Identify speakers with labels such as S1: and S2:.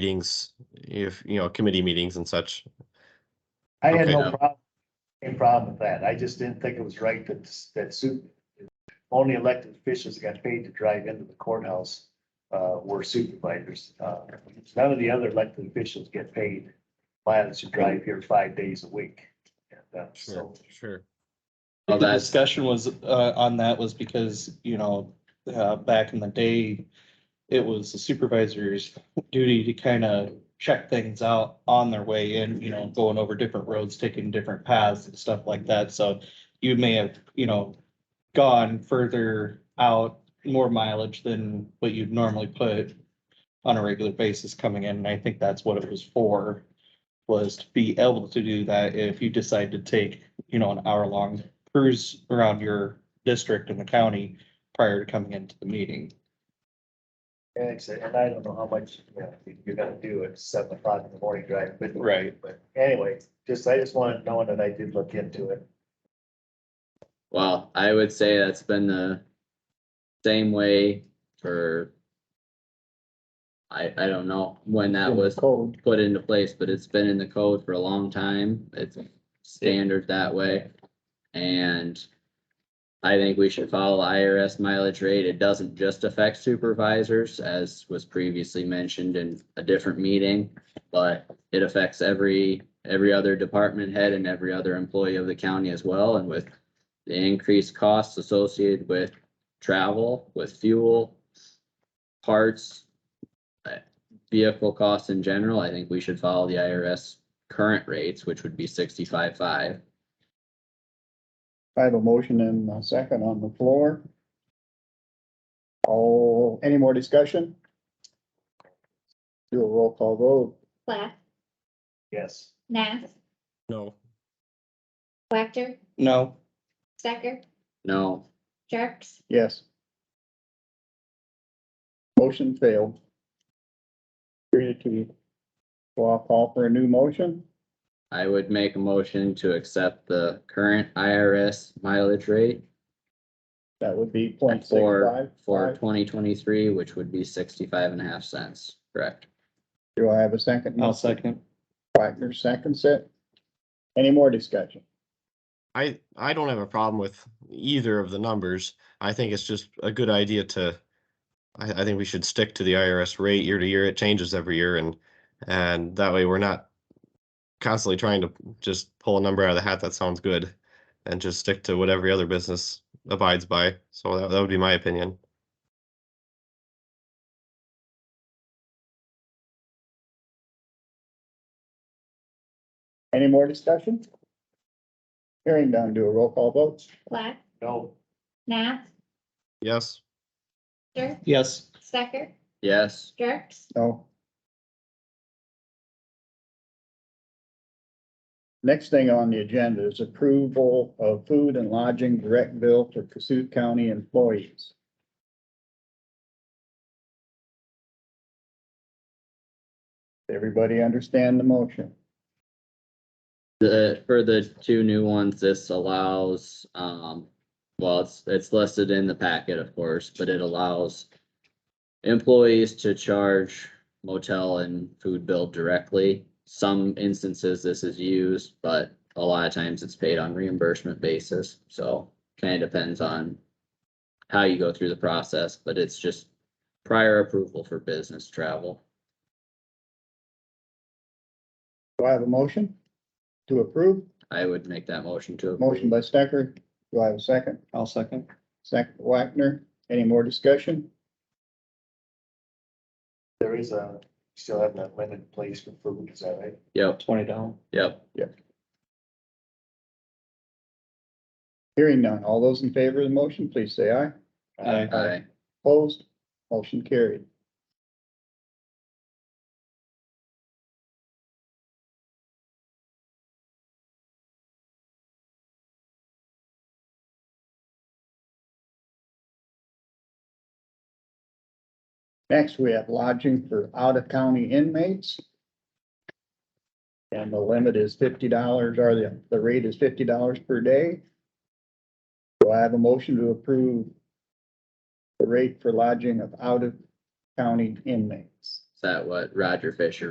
S1: meetings, if, you know, committee meetings and such.
S2: I had
S1: Okay.
S2: no problem, any problem with that. I just didn't think it was right that, that suit, only elected officials that got paid to drive into the courthouse, uh, were supervisors. Uh, None of the other elected officials get paid pilots who drive here five days a week. And, uh, So,
S1: sure.
S3: Well, the discussion was, uh, on that was because, you know, uh, back in the day, it was the supervisor's duty to kind of check things out on their way in, you know, going over different roads, taking different paths and stuff like that. So you may have, you know, gone further out, more mileage than what you'd normally put on a regular basis coming in. And I think that's what it was for, was to be able to do that if you decide to take, you know, an hour long cruise around your district and the county prior to coming into the meeting.
S2: and it's- and I don't know how much, you know, you're gonna do at seven o'clock in the morning drive, but.
S3: Right.
S2: But anyway, just, I just wanted to know that I did look into it.
S4: Well, I would say that's been the same way for. I, I don't know when that was
S2: Cold.
S4: put into place, but it's been in the code for a long time. It's standard that way. And I think we should follow IRS mileage rate. It doesn't just affect supervisors, as was previously mentioned in a different meeting. But it affects every, every other department head and every other employee of the county as well. And with the increased costs associated with travel, with fuel, parts, vehicle costs in general, I think we should follow the IRS current rates, which would be sixty-five, five.
S5: I have a motion and a second on the floor. Oh, any more discussion? Do a roll call vote.
S6: Plath,
S2: Yes.
S6: Nath,
S1: No,
S6: Wactor,
S3: No,
S6: Stecker,
S4: No,
S6: Jerks,
S5: Yes. Motion failed. Three to two. So I'll call for a new motion.
S4: I would make a motion to accept the current IRS mileage rate
S5: That would be point six
S4: for,
S5: five.
S4: for
S5: five.
S4: twenty twenty-three, which would be sixty-five and a half cents, correct?
S5: Do I have a 2nd
S3: I'll second.
S5: Wagner seconds it. Any more discussion?
S1: I, I don't have a problem with either of the numbers. I think it's just a good idea to, I, I think we should stick to the IRS rate year to year. It changes every year and, and that way we're not constantly trying to just pull a number out of the hat that sounds good and just stick to what every other business abides by. So that, that would be my opinion.
S5: Any more discussion? Hearing none, do a roll call vote.
S6: Plath,
S2: No.
S6: Nath,
S1: Yes?
S6: Jerk,
S3: Yes,
S6: Stecker,
S4: Yes,
S6: Jerks,
S5: No. Next thing on the agenda is approval of food and lodging direct bill for Cassuth County employees. Everybody understand the motion?
S4: the, for the two new ones, this allows, um, well, it's, it's listed in the packet, of course, but it allows employees to charge motel and food bill directly. Some instances this is used, but a lot of times it's paid on reimbursement basis, so kind of depends on how you go through the process, but it's just prior approval for business travel.
S5: Do I have a motion to approve?
S4: I would make that motion to. approve.
S5: Motion by Stecker. Do I have a second?
S3: I'll second.
S5: Second by Wagner. Any more discussion?
S2: There is a, still have that limited place for food, is that right?
S4: Yep,
S3: Twenty down.
S4: yep.
S5: Hearing none. All those in favor of the motion, please say aye.
S3: Aye.
S4: Aye.
S5: Opposed, motion carried. Next, we have lodging for out-of-county inmates. And the limit is fifty dollars, or the, the rate is fifty dollars per day. Do I have a motion to approve the rate for lodging of out-of-county inmates.
S4: that what Roger Fisher